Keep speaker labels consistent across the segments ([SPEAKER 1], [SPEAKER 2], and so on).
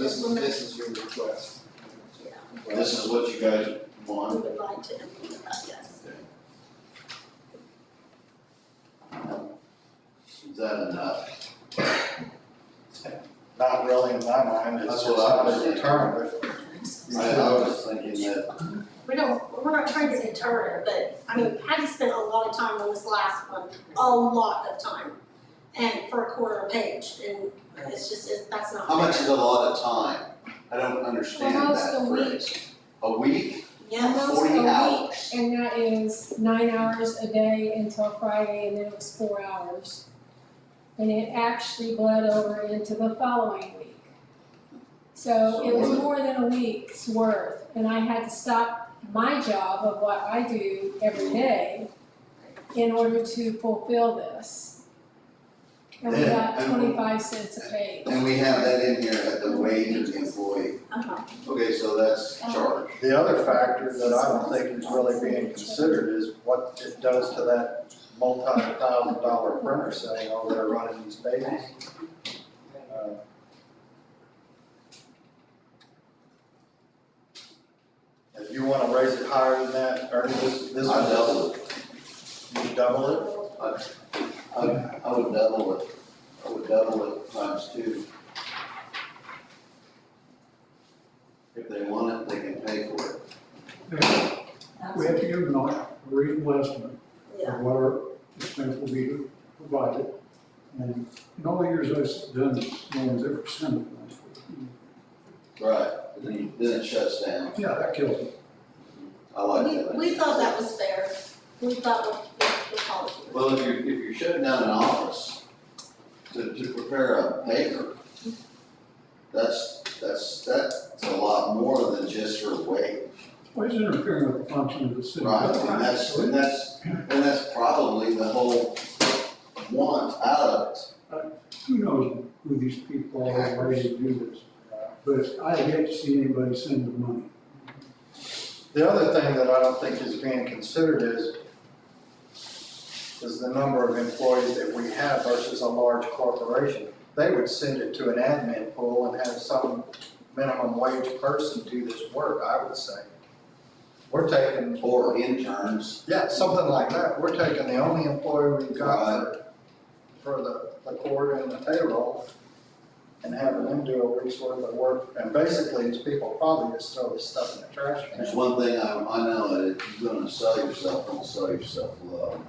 [SPEAKER 1] this is,
[SPEAKER 2] implement-
[SPEAKER 1] this is your request.
[SPEAKER 2] yeah,
[SPEAKER 3] This is what you guys
[SPEAKER 2] we
[SPEAKER 3] want,
[SPEAKER 2] would like to implement that, yes.
[SPEAKER 3] is that enough?
[SPEAKER 4] Not really in my mind,
[SPEAKER 3] That's
[SPEAKER 4] it's
[SPEAKER 3] what
[SPEAKER 4] just
[SPEAKER 3] I
[SPEAKER 4] not
[SPEAKER 3] was
[SPEAKER 4] a
[SPEAKER 3] thinking.
[SPEAKER 4] deterrent.
[SPEAKER 3] I I was thinking that,
[SPEAKER 2] We don't, we're not trying to deter her, but I mean, Patty spent a lot of time on this last one, a lot of time. And for a quarter page, and it's just, it- that's not
[SPEAKER 3] how much
[SPEAKER 2] fair.
[SPEAKER 3] is a lot of time? I don't understand
[SPEAKER 5] Almost
[SPEAKER 3] that
[SPEAKER 5] a week.
[SPEAKER 3] phrase. A week,
[SPEAKER 2] Yeah,
[SPEAKER 5] Almost
[SPEAKER 3] forty
[SPEAKER 5] a week.
[SPEAKER 3] hours,
[SPEAKER 5] And that is nine hours a day until Friday, and then it was four hours. And it actually bled over into the following week. So it was
[SPEAKER 3] So-
[SPEAKER 5] more than a week's worth, and I had to stop my job of what I do every day in order to fulfill this. And we got
[SPEAKER 3] Yeah, and-
[SPEAKER 5] twenty-five cents a page.
[SPEAKER 3] and we have that in here at the wage of the employee,
[SPEAKER 2] uh-huh,
[SPEAKER 3] okay, so that's charge.
[SPEAKER 4] The other factor that I don't think is really being considered is what it does to that multi-thousand dollar printer sitting over there running these babies. Uh, If you wanna raise it higher than that, Ernie, this,
[SPEAKER 3] I
[SPEAKER 4] this one
[SPEAKER 3] double
[SPEAKER 4] double,
[SPEAKER 3] it,
[SPEAKER 4] you double it,
[SPEAKER 2] Uh-huh.
[SPEAKER 3] I, I would double it, I would double it times two. If they want it, they can pay for it.
[SPEAKER 2] that's-
[SPEAKER 6] We have to give them a reasonable estimate
[SPEAKER 2] yeah.
[SPEAKER 6] of what our expense will be provided. And in all the years I've done, this, no one's ever sent it.
[SPEAKER 3] Right. Then you- then it shuts down,
[SPEAKER 6] Yeah, that kills it.
[SPEAKER 3] I like
[SPEAKER 2] We,
[SPEAKER 3] that.
[SPEAKER 2] we thought that was fair, we thought what, what the policy was.
[SPEAKER 3] Well, if you're, if you're shutting down an office to, to prepare a paper, that's, that's, that's a lot more than just her weight.
[SPEAKER 6] Why is it interfering with the function of the city?
[SPEAKER 3] Right, and that's, and that's, and that's probably the whole want out of it.
[SPEAKER 6] Who knows who these people are, and why they do this? But I hate to see anybody send the money.
[SPEAKER 4] The other thing that I don't think is being considered is, is the number of employees that we have versus a large corporation. They would send it to an admin pool and have some minimum wage person do this work, I would say. We're taking,
[SPEAKER 3] Or interns,
[SPEAKER 4] yeah, something like that, we're taking the only employee we've got for, for the, the court and the payroll and having them do a week's worth of work, and basically, these people probably just throw this stuff in the trash can.
[SPEAKER 3] there's one thing I, I know, that if you're gonna sell yourself, don't sell yourself low.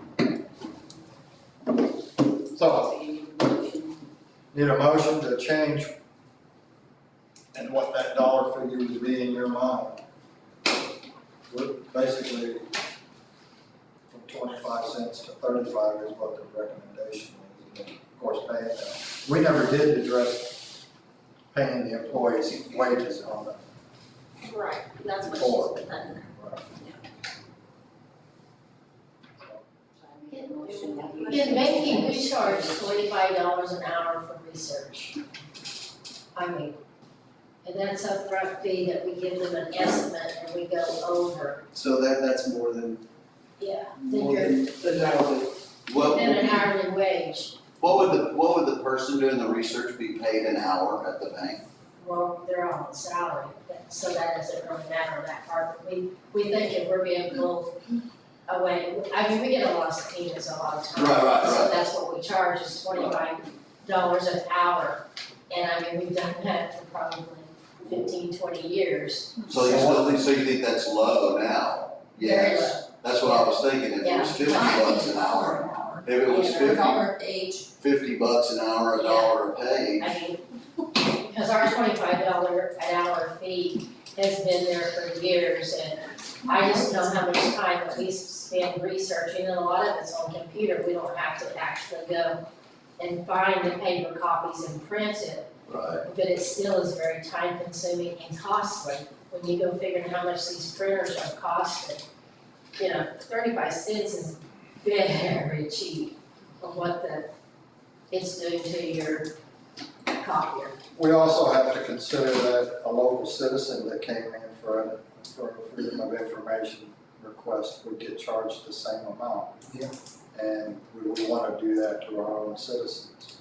[SPEAKER 4] So, need a motion to change and what that dollar figure would be in your mind. We're Basically, from twenty-five cents to thirty-five is what the recommendation is, and of course, paying them. We never did address paying the employees wages on that.
[SPEAKER 2] Right, that's what
[SPEAKER 4] Four.
[SPEAKER 2] she said, that in there.
[SPEAKER 7] In banking, we charge twenty-five dollars an hour for research. I mean, and that's a rough fee that we give them an estimate and we go over,
[SPEAKER 1] So that, that's more than,
[SPEAKER 7] yeah, then
[SPEAKER 1] more
[SPEAKER 7] you're,
[SPEAKER 1] than, than hourly.
[SPEAKER 3] What,
[SPEAKER 7] then an hourly wage.
[SPEAKER 3] what would the, what would the person doing the research be paid an hour at the bank?
[SPEAKER 7] Well, they're on salary, but- so that doesn't really matter that part, but we, we think if we're being pulled away, I mean, we get a lot of subpoenas a lot of times.
[SPEAKER 3] Right, right,
[SPEAKER 7] So
[SPEAKER 3] right.
[SPEAKER 7] that's what we charge is twenty-five dollars an hour, and I mean, we've done that for probably 15, 20 years.
[SPEAKER 3] So you still think, so you think that's low now?
[SPEAKER 7] Very
[SPEAKER 3] Yes.
[SPEAKER 7] low.
[SPEAKER 3] That's what I was thinking, if it was fifty bucks an hour, if it was
[SPEAKER 7] Yeah.
[SPEAKER 3] fifty,
[SPEAKER 2] Dollar age,
[SPEAKER 3] fifty bucks an hour, a dollar a page,
[SPEAKER 7] I mean, because our twenty-five dollar an hour fee has been there for years, and I just know how much time that we spend researching, and a lot of it's on computer, we don't have to actually go and find the paper copies and print it,
[SPEAKER 3] right?
[SPEAKER 7] but it still is very time consuming and costly when you go figuring how much these printers are costing. You know, thirty-five cents is very cheap of what the, it's doing to your copier.
[SPEAKER 4] We also have to consider that a local citizen that came in for a, for a freedom of information request would get charged the same amount.
[SPEAKER 1] Yeah.
[SPEAKER 4] And we would wanna do that to our own citizens.